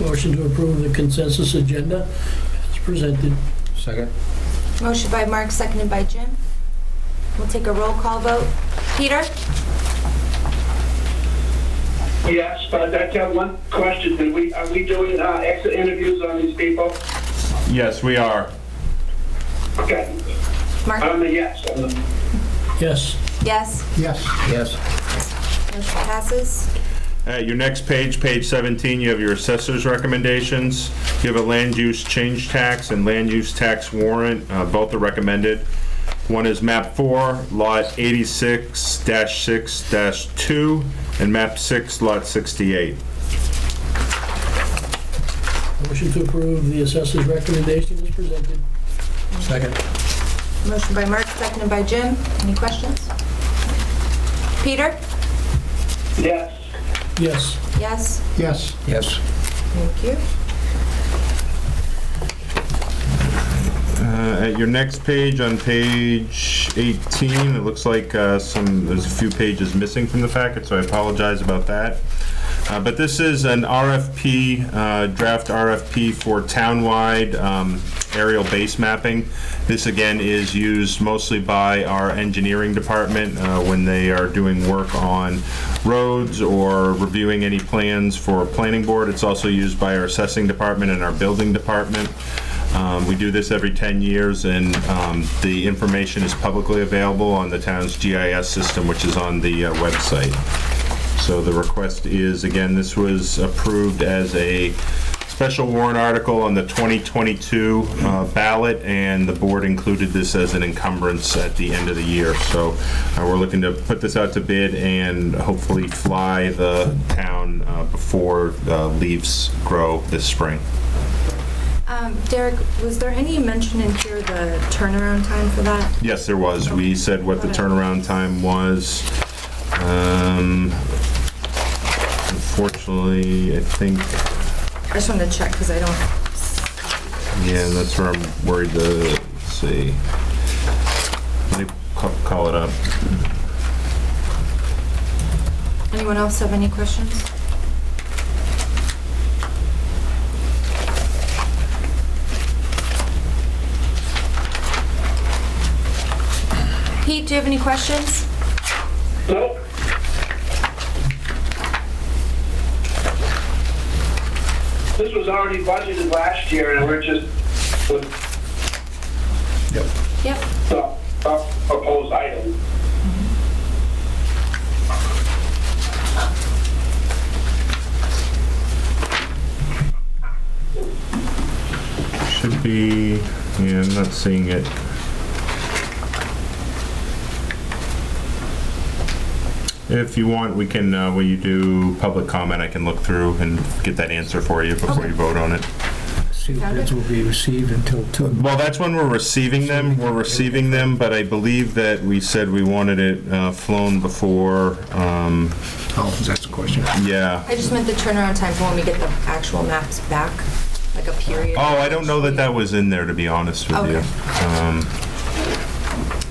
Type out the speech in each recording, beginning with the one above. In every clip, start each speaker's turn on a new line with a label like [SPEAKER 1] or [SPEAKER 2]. [SPEAKER 1] Motion to approve the consensus agenda as presented.
[SPEAKER 2] Second?
[SPEAKER 3] Motion by Mark, seconded by Jim. We'll take a roll call vote. Peter?
[SPEAKER 4] Yes, but I got one question. Did we, are we doing uh, exit interviews on these people?
[SPEAKER 5] Yes, we are.
[SPEAKER 4] Okay,
[SPEAKER 3] Mark?
[SPEAKER 4] I'm a yes. on them.
[SPEAKER 1] Yes.
[SPEAKER 3] Yes.
[SPEAKER 2] Yes. Yes.
[SPEAKER 3] Motion passes.
[SPEAKER 5] At your next page, page 17, you have your assessor's recommendations. You have a land use change tax and land use tax warrant, uh, both are recommended. One is map 4, lot 86-6-2, and map 6, lot 68.
[SPEAKER 1] Motion to approve the assessor's recommendation as presented.
[SPEAKER 2] Second?
[SPEAKER 3] Motion by Mark, seconded by Jim. Any questions? Peter?
[SPEAKER 4] Yes,
[SPEAKER 1] Yes.
[SPEAKER 3] Yes.
[SPEAKER 2] Yes. Yes.
[SPEAKER 3] Thank you.
[SPEAKER 5] Uh, At your next page, on page 18, it looks like uh, some, there's a few pages missing from the packet, so I apologize about that. Uh, But this is an RFP, uh, draft RFP for townwide um, aerial base mapping. This, again, is used mostly by our engineering department uh, when they are doing work on roads or reviewing any plans for planning board. It's also used by our assessing department and our building department. Um, We do this every 10 years, and um, the information is publicly available on the town's GIS system, which is on the uh, website. So the request is, again, this was approved as a special warrant article on the 2022 uh, ballot, and the board included this as an encumbrance at the end of the year. So uh, we're looking to put this out to bid and hopefully fly the town uh, before uh, leaves grow this spring.
[SPEAKER 3] Um, Derek, was there any mention in here the turnaround time for that?
[SPEAKER 5] Yes, there was. We said what the turnaround time was. Um, Unfortunately, I think,
[SPEAKER 3] I just wanted to check because I don't,
[SPEAKER 5] yeah, that's where I'm worried to, let's see. Let me ca- call it up.
[SPEAKER 3] anyone else have any questions? Pete, do you have any questions?
[SPEAKER 4] nope, this was already budgeted last year and we're just, with
[SPEAKER 2] Yep.
[SPEAKER 3] Yep.
[SPEAKER 4] the the proposed item.
[SPEAKER 5] Should be, yeah, I'm not seeing it. If you want, we can, uh, when you do public comment, I can look through and get that answer for you before you vote on it.
[SPEAKER 2] See, the bids will be received until two.
[SPEAKER 5] Well, that's when we're receiving them, we're receiving them, but I believe that we said we wanted it uh, flown before, um,
[SPEAKER 2] Oh, that's the question.
[SPEAKER 5] yeah.
[SPEAKER 3] I just meant the turnaround time for when we get the actual maps back, like a period.
[SPEAKER 5] Oh, I don't know that that was in there, to be honest with you. Um,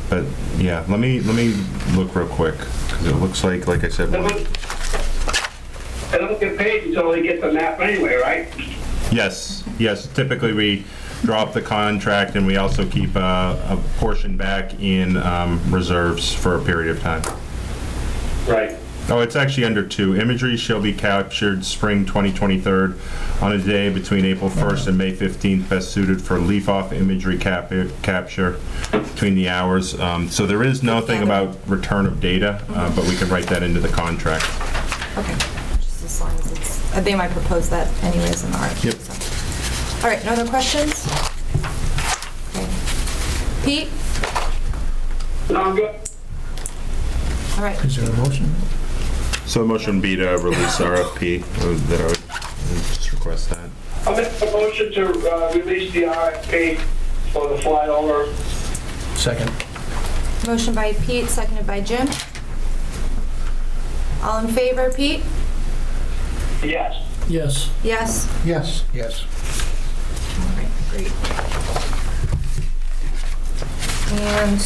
[SPEAKER 5] But, yeah, let me, let me look real quick, because it looks like, like I said,
[SPEAKER 4] They
[SPEAKER 5] we're-
[SPEAKER 4] don't they don't get paid until they get the map anyway, right?
[SPEAKER 5] Yes, yes, typically we drop the contract and we also keep a, a portion back in um, reserves for a period of time.
[SPEAKER 4] Right.
[SPEAKER 5] Oh, it's actually under two. Imagery shall be captured spring 2023 on a day between April 1st and May 15th, best suited for leaf-off imagery cap- capture between the hours. Um, So there is nothing about return of data, uh, but we can write that into the contract.
[SPEAKER 3] Okay, just as long as it's, uh, they might propose that anyways in the RFP.
[SPEAKER 5] Yep.
[SPEAKER 3] so. All right, no other questions? Okay. Pete?
[SPEAKER 4] No, I'm good.
[SPEAKER 3] All right,
[SPEAKER 2] Is there a motion?
[SPEAKER 5] So the motion would be to release RFP, uh, that I would just request that.
[SPEAKER 4] I'll make a motion to uh, release the RFP for the flyover.
[SPEAKER 2] Second.
[SPEAKER 3] motion by Pete, seconded by Jim. All in favor, Pete?
[SPEAKER 4] Yes.
[SPEAKER 1] Yes.
[SPEAKER 3] Yes?
[SPEAKER 2] Yes. Yes.
[SPEAKER 3] All right, great. And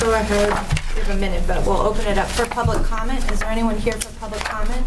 [SPEAKER 3] go ahead, we have a minute, but we'll open it up for public comment. Is there anyone here for public comment?